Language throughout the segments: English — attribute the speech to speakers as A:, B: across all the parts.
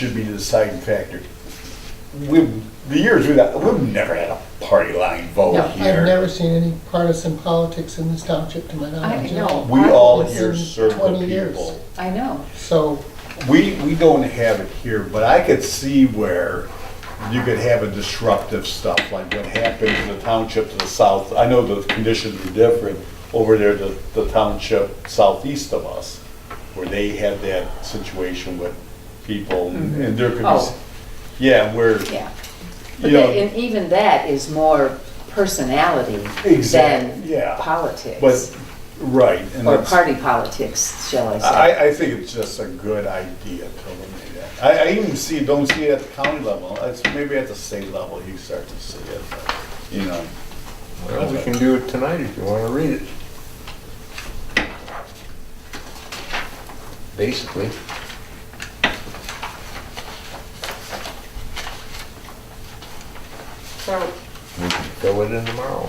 A: should be the deciding factor. We, the years we've, we've never had a party line
B: No,
A: vote
B: I've
A: here.
B: never seen any partisan politics in this township to my knowledge.
C: I know.
A: We all here
B: in
A: serve the
B: 20 years.
A: people.
C: I know.
B: So,
A: We, we don't have it here, but I could see where you could have a disruptive stuff, like what happened in the township to the south. I know the conditions are different over there, the, the township southeast of us, where they had that situation with people and
B: Mm-hmm.
A: and there could be,
C: Oh.
A: s- yeah, where,
C: Yeah. But
A: you know.
C: that, and even that is more personality
A: Exact-
C: than
A: yeah.
C: politics.
A: But, right. and
C: Or
A: that's-
C: party politics, shall I say.
A: I, I think it's just a good idea to eliminate that. I, I even see, don't see it at the county level, it's maybe at the state level you start to see it, but, you know.
D: Well, we can do it tonight if you want to read it. Basically.
E: So,
D: We can Fill it in tomorrow.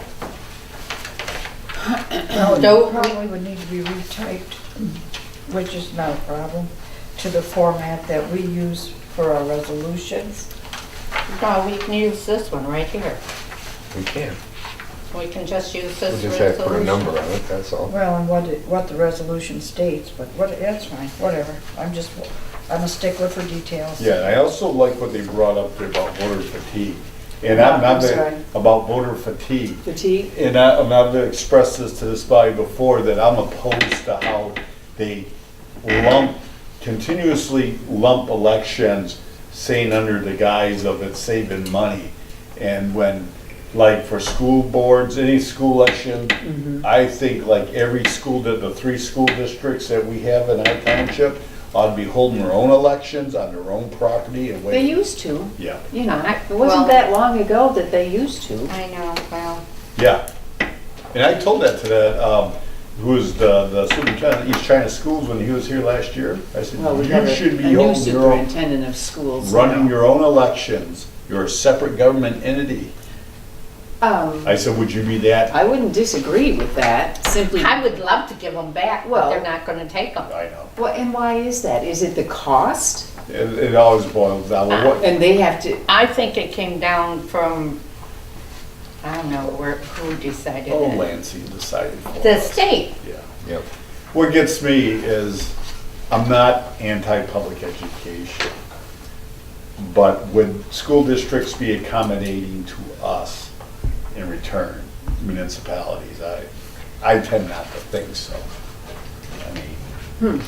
E: though it Um, probably would need to be retyped, which is not a problem, to the format that we use for our resolutions.
F: No, we can use this one right here.
D: We can.
F: We can just use
D: We
F: this
D: just have to put a number on
F: resolution.
D: it, that's all.
E: Well, and what, it- what the resolution states, but what, that's fine, whatever. I'm just, I'm a stickler for details.
A: Yeah, and I also like what they brought up there about voter fatigue, and I'm not,
E: I'm sorry.
A: the- about voter fatigue,
C: Fatigue?
A: and I, and I've expressed this to this body before, that I'm opposed to how they lump, continuously lump elections, saying under the guise of it's saving money. And when, like for school boards, any school election, I think like every school, that the three school districts that we have in our township ought to be holding their own elections on their own property and
C: They
A: wait.
C: used to,
A: Yeah,
C: you know, I- it
F: Well-
C: wasn't that long ago that they used to.
F: I know, well,
A: yeah. And I told that to that, um, who was the, the superintendent of East China Schools when he was here last year. I said,
C: Well, we have
A: you
C: a
A: should
C: a
A: be
C: new
A: holding your own
C: superintendent of schools.
A: running
C: now.
A: your own elections. You're a separate government entity.
C: Um,
A: I said, would you be that?
C: I wouldn't disagree with that, simply,
F: I would love to give them back, but
C: Well-
F: they're not gonna take them.
A: I know.
C: Well, and why is that? Is it the cost?
A: It, it always boils down to what,
C: And they have to,
F: I think it came down from, I don't know where, who decided
A: oh,
F: it.
A: Lansing decided for
F: The
A: us.
F: state.
A: Yeah.
D: Yep.
A: What gets me is, I'm not anti-public education, but would school districts be accommodating to us in return, municipalities? I, I tend not to think so. I mean,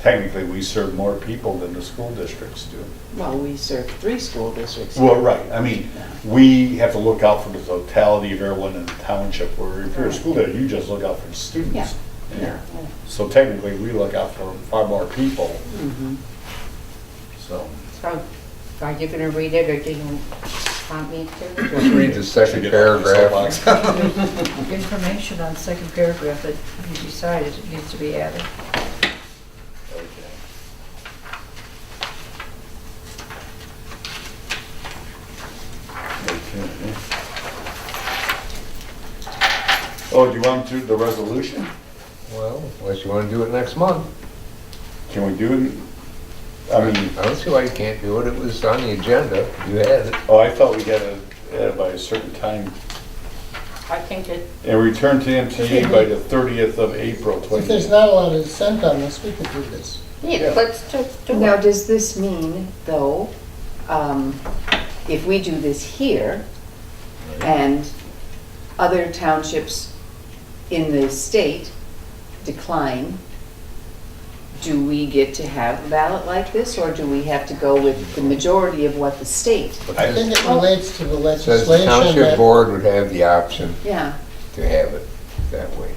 A: Technically, we serve more people than the school districts do.
C: well, we serve three school districts.
A: Well, right, I mean, we have to look out for the totality of everyone in the township, where if you're a school there, you just look out for the students.
C: Yeah.
A: So technically, we look out for far more people,
C: Mhm.
A: so.
F: So are you gonna read it or do you want me to?
D: Just read the second
A: Should get off my
D: paragraph.
A: soapbox.
E: Information on second paragraph that you decided it needs to be added.
A: Okay. Okay. Oh, do you want to do the resolution?
D: Well, unless you want to do it next month.
A: Can we do it? I mean.
D: I don't see why you can't do it. It was on the agenda. You had it.
A: Oh, I thought we had it uh, by a certain time.
F: I think it,
A: And return to MTA by the 30th of April
B: if there's
A: 20.
B: not a lot of dissent on this, we could do this.
F: yeah, let's just do
C: Now,
F: it.
C: does this mean, though, um, if we do this here and other townships in the state decline, do we get to have a ballot like this or do we have to go with the majority of what the state?
B: I think it relates to the
D: Says the
B: legislation
D: township
B: that,
D: board would have the option
C: Yeah,
D: to have it that way.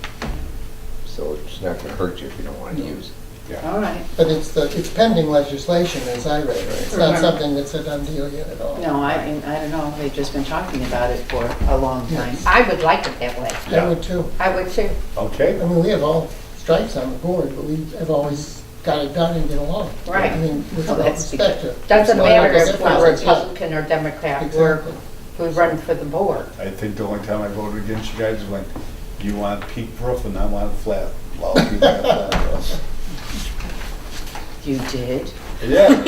D: So it's not going to hurt you if you don't want to use it.
C: all right.
B: but it's the, it's pending legislation as I read it. It's not
C: Right.
B: something that's a done deal yet at all.
C: No, I, I don't know, they've just been talking about it for a long time.
F: I would like it that way.
B: I would too.
F: I would too.
A: Okay,
B: I mean, we have all stripes on the board, but we have always got it done and get along.
F: Right.
B: I mean, with
C: Well,
B: all
C: that's
B: respect to.
F: Doesn't
B: Well,
F: matter
B: that's
F: if we're
B: different.
F: Republican or Democrat, we're,
B: Exactly.
F: we run for the board.
A: I think the only time I voted against you guys was when you want peaked roof and I want flat. Well, you want a flat roof.
C: You did?
A: Yeah.